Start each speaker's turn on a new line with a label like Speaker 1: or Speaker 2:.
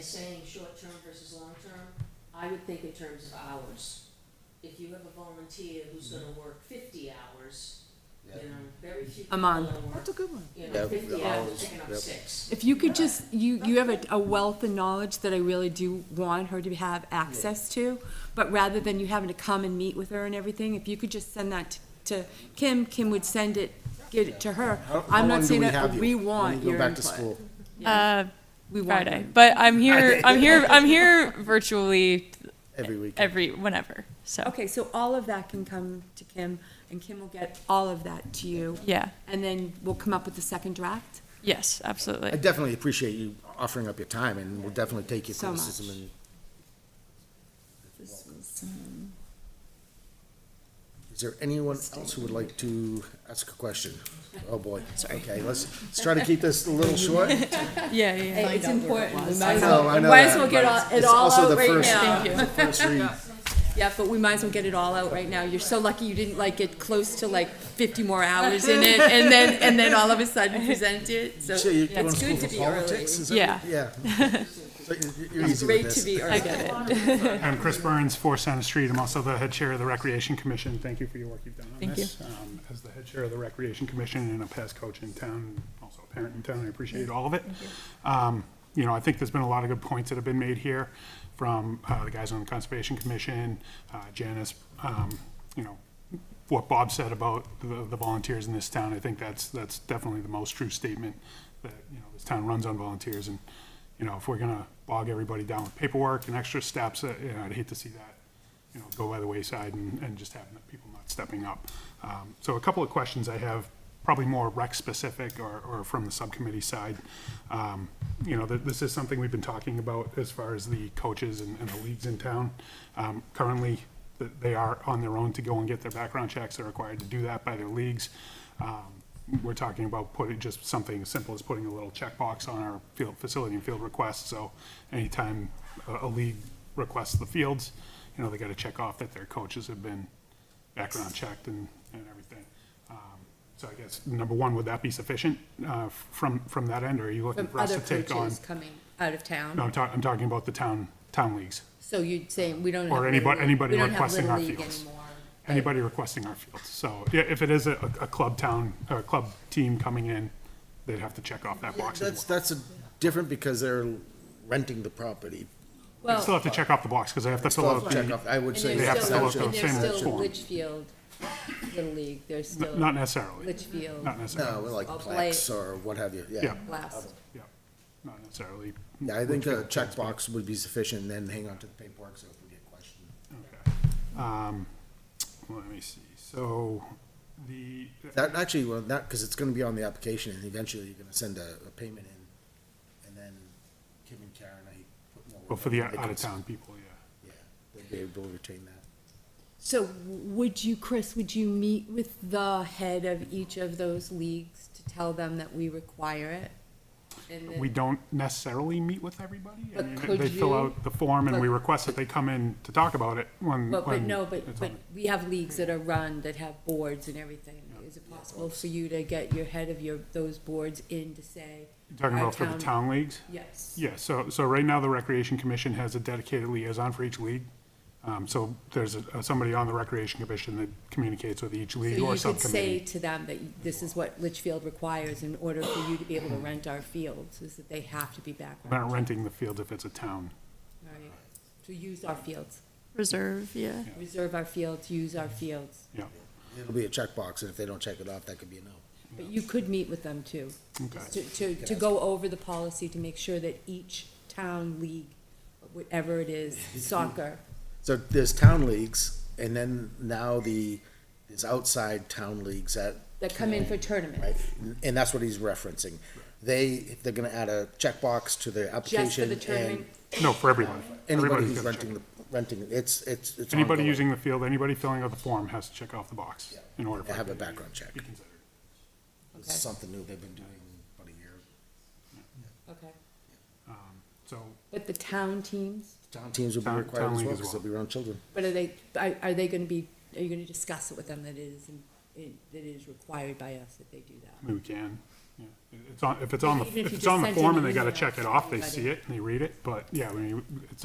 Speaker 1: saying short-term versus long-term, I would think in terms of hours. If you have a volunteer who's gonna work fifty hours, you
Speaker 2: Mm-hmm. Yeah.
Speaker 1: know, very few
Speaker 3: A
Speaker 1: people are
Speaker 3: month.
Speaker 1: work,
Speaker 4: That's a good one.
Speaker 1: you
Speaker 2: Yeah,
Speaker 1: know, fifty hours,
Speaker 2: hours,
Speaker 1: picking up
Speaker 2: yep.
Speaker 1: six.
Speaker 3: If you could just, you, you have a, a wealth of knowledge that I really do want her to have access to, but rather than you having to come and meet with her and everything, if you could just send that to to Kim, Kim would send it, get it to her.
Speaker 5: How- how
Speaker 3: I'm
Speaker 5: long
Speaker 3: not
Speaker 5: do
Speaker 3: saying that,
Speaker 5: have
Speaker 3: but
Speaker 5: you
Speaker 3: we
Speaker 5: when
Speaker 3: want
Speaker 5: you
Speaker 3: your
Speaker 5: go back to
Speaker 3: input.
Speaker 5: school?
Speaker 6: Uh,
Speaker 3: We want
Speaker 6: Friday,
Speaker 3: it.
Speaker 6: but I'm here. I'm here. I'm here virtually
Speaker 3: E-,
Speaker 5: Every week.
Speaker 6: every whenever. So
Speaker 3: Okay, so all of that can come to Kim, and Kim will get all of that to you,
Speaker 6: yeah,
Speaker 3: and then we'll come up with the second draft.
Speaker 6: yes,
Speaker 5: I
Speaker 6: absolutely.
Speaker 5: definitely appreciate you offering up your time and we'll definitely take your
Speaker 3: So much.
Speaker 5: criticism and
Speaker 3: This was, um,
Speaker 5: is there anyone else who would like to ask a question? Oh, boy. Okay, let's, let's try to keep this a little short.
Speaker 6: Yeah, yeah.
Speaker 3: It's important. We might
Speaker 5: I
Speaker 3: as
Speaker 5: know,
Speaker 3: well-
Speaker 5: I know
Speaker 3: Might as
Speaker 5: that,
Speaker 3: well get
Speaker 5: but
Speaker 3: all- it
Speaker 5: it's
Speaker 3: all
Speaker 5: also
Speaker 3: out
Speaker 5: the
Speaker 3: right
Speaker 5: first-
Speaker 3: now.
Speaker 5: First read.
Speaker 3: Yeah, but we might as well get it all out right now. You're so lucky you didn't like get close to like fifty more hours in it and then, and then all of a sudden present it, so
Speaker 5: So you're going to
Speaker 3: it's
Speaker 5: school
Speaker 3: good to
Speaker 5: for
Speaker 3: be early.
Speaker 5: politics? is that-
Speaker 6: Yeah.
Speaker 5: Yeah. So you're- You're
Speaker 3: It's
Speaker 5: easy with
Speaker 3: great to
Speaker 5: this.
Speaker 3: be
Speaker 6: I
Speaker 3: early.
Speaker 6: get it.
Speaker 7: I'm Chris Burns, Four Center Street. I'm also the head chair of the Recreation Commission. Thank you for your work you've done on
Speaker 6: Thank you.
Speaker 7: this. Um, As the head chair of the Recreation Commission and a past coach in town, also a parent in town, I appreciate all of it. Um, You know, I think there's been a lot of good points that have been made here from uh, the guys on the Conservation Commission, uh, Janice, um, you know, what Bob said about the the volunteers in this town. I think that's, that's definitely the most true statement that, you know, this town runs on volunteers and, you know, if we're gonna bog everybody down with paperwork and extra steps, uh, you know, I'd hate to see that, you know, go by the wayside and, and just have people not stepping up. Um, so a couple of questions I have, probably more rec-specific or, or from the subcommittee side. Um, you know, that this is something we've been talking about as far as the coaches and, and the leagues in town. Um, currently, th- they are on their own to go and get their background checks. They're required to do that by their leagues. Um, we're talking about putting, just something as simple as putting a little checkbox on our field, facility and field requests, so anytime a, a league requests the fields, you know, they gotta check off that their coaches have been background checked and, and everything. Um, So I guess, number one, would that be sufficient, uh, from, from that end, or are you looking
Speaker 3: From
Speaker 7: for us
Speaker 3: other
Speaker 7: to take on?
Speaker 3: coaches coming out of
Speaker 7: No,
Speaker 3: town,
Speaker 7: I'm talking, I'm talking about the town, town leagues,
Speaker 3: so you're saying we don't have.
Speaker 7: Or
Speaker 3: Little
Speaker 7: anybody-
Speaker 3: League-
Speaker 7: anybody
Speaker 3: we don't have
Speaker 7: requesting
Speaker 3: Little
Speaker 7: our
Speaker 3: League
Speaker 7: fields.
Speaker 3: anymore.
Speaker 7: anybody requesting our fields. So, yeah, if it is a, a club town, a club team coming in, they'd have to check off that box. as
Speaker 5: That's,
Speaker 7: well.
Speaker 5: that's a- different because they're renting the property.
Speaker 7: They still
Speaker 3: Well,
Speaker 7: have to check off the box, because I have to fill
Speaker 5: Still have
Speaker 7: out
Speaker 5: to check
Speaker 7: the,
Speaker 5: off. I would
Speaker 3: and
Speaker 5: say.
Speaker 7: They have
Speaker 3: there's still,
Speaker 7: to fill out the
Speaker 3: and
Speaker 7: same
Speaker 3: there's still
Speaker 7: form.
Speaker 3: Litchfield, Little League, there's still
Speaker 7: not necessarily,
Speaker 3: Litchfield,
Speaker 7: not necessarily,
Speaker 5: No, we're like
Speaker 3: Or
Speaker 5: plaques or what have you, yeah.
Speaker 7: Yeah.
Speaker 3: last.
Speaker 7: yeah, not necessarily.
Speaker 5: Yeah, I think a checkbox would be sufficient, and then hang on to the paperwork, so if we get questioned.
Speaker 7: Okay. Um, Let me see, so the,
Speaker 5: That, actually, well, not, because it's gonna be on the application, and eventually you're gonna send a, a payment in, and then Kim and Karen, I put more.
Speaker 7: well, for the
Speaker 5: work on it, because-
Speaker 7: out-of-town people, yeah.
Speaker 5: Yeah, they'll be able to retain that.
Speaker 3: So would you, Chris, would you meet with the head of each of those leagues to tell them that we require it? And
Speaker 7: We
Speaker 3: then-
Speaker 7: don't necessarily meet with everybody. I
Speaker 3: But
Speaker 7: mean,
Speaker 3: could
Speaker 7: They fill
Speaker 3: you-
Speaker 7: out the form, and we
Speaker 3: but-
Speaker 7: request that they come in to talk about it when,
Speaker 3: But, but
Speaker 7: when
Speaker 3: no, but,
Speaker 7: um, it's
Speaker 3: but
Speaker 7: on
Speaker 3: we have leagues that are run, that have boards and everything. Is it possible for you to get your head of your, those boards in to say?
Speaker 7: the- Talking
Speaker 3: our
Speaker 7: about for the town leagues?
Speaker 3: Yes.
Speaker 7: Yeah, so, so right now, the Recreation Commission has a dedicated liaison for each league. Um, So there's a- somebody on the Recreation Commission that communicates with each league
Speaker 3: So
Speaker 7: or
Speaker 3: you could say
Speaker 7: subcommittee.
Speaker 3: to them that this is what Litchfield requires in order for you to be able to rent our fields, is that they have to be
Speaker 7: We're
Speaker 3: background,
Speaker 7: not renting the field if it's a town.
Speaker 3: right? To use our fields,
Speaker 6: Reserve. Yeah.
Speaker 3: reserve our fields, use our fields.
Speaker 7: Yeah,
Speaker 5: It'll be a checkbox, and if they don't check it off, that could be a no.
Speaker 3: But you could meet with them too.
Speaker 7: okay.
Speaker 3: to, to, to go over the policy to make sure that each town league, whatever it is, soccer,
Speaker 5: So there's town leagues, and then now the, there's outside town leagues that
Speaker 3: that come in for
Speaker 5: Right,
Speaker 3: tournaments.
Speaker 5: and that's what he's referencing. They, they're gonna add a checkbox to their
Speaker 3: Just for
Speaker 5: application
Speaker 3: the
Speaker 5: and
Speaker 3: tournament,
Speaker 7: No, for everyone.
Speaker 5: anybody
Speaker 7: Everybody's
Speaker 5: who's
Speaker 7: gotta check.
Speaker 5: renting, the renting, it's, it's, it's.
Speaker 7: Anybody
Speaker 5: ongoing.
Speaker 7: using the field, anybody filling out the form has to check off the box in order
Speaker 5: They
Speaker 7: for.
Speaker 5: have a
Speaker 7: it to be-
Speaker 5: background check.
Speaker 7: Be considered.
Speaker 5: It's
Speaker 3: Okay.
Speaker 5: something new they've been doing about a year.
Speaker 3: okay.
Speaker 7: So
Speaker 3: But the town teams,
Speaker 5: Town teams will be
Speaker 7: Town-
Speaker 5: required
Speaker 7: town
Speaker 5: as
Speaker 7: league
Speaker 5: well,
Speaker 7: as
Speaker 5: because they'll
Speaker 7: well.
Speaker 5: be around children.
Speaker 3: but are they, are, are they gonna be, are you gonna discuss it with them that it is, in- it- that it is required by us that they do that?
Speaker 7: I mean, we can, Yeah, It's on, if it's on the,
Speaker 3: Even if
Speaker 7: if
Speaker 3: you
Speaker 7: it's on the
Speaker 3: just sent
Speaker 7: form
Speaker 3: an
Speaker 7: and they gotta
Speaker 3: email
Speaker 7: check
Speaker 3: to
Speaker 7: it off, they
Speaker 3: everybody.
Speaker 7: see it and they read it, but yeah, I mean, it's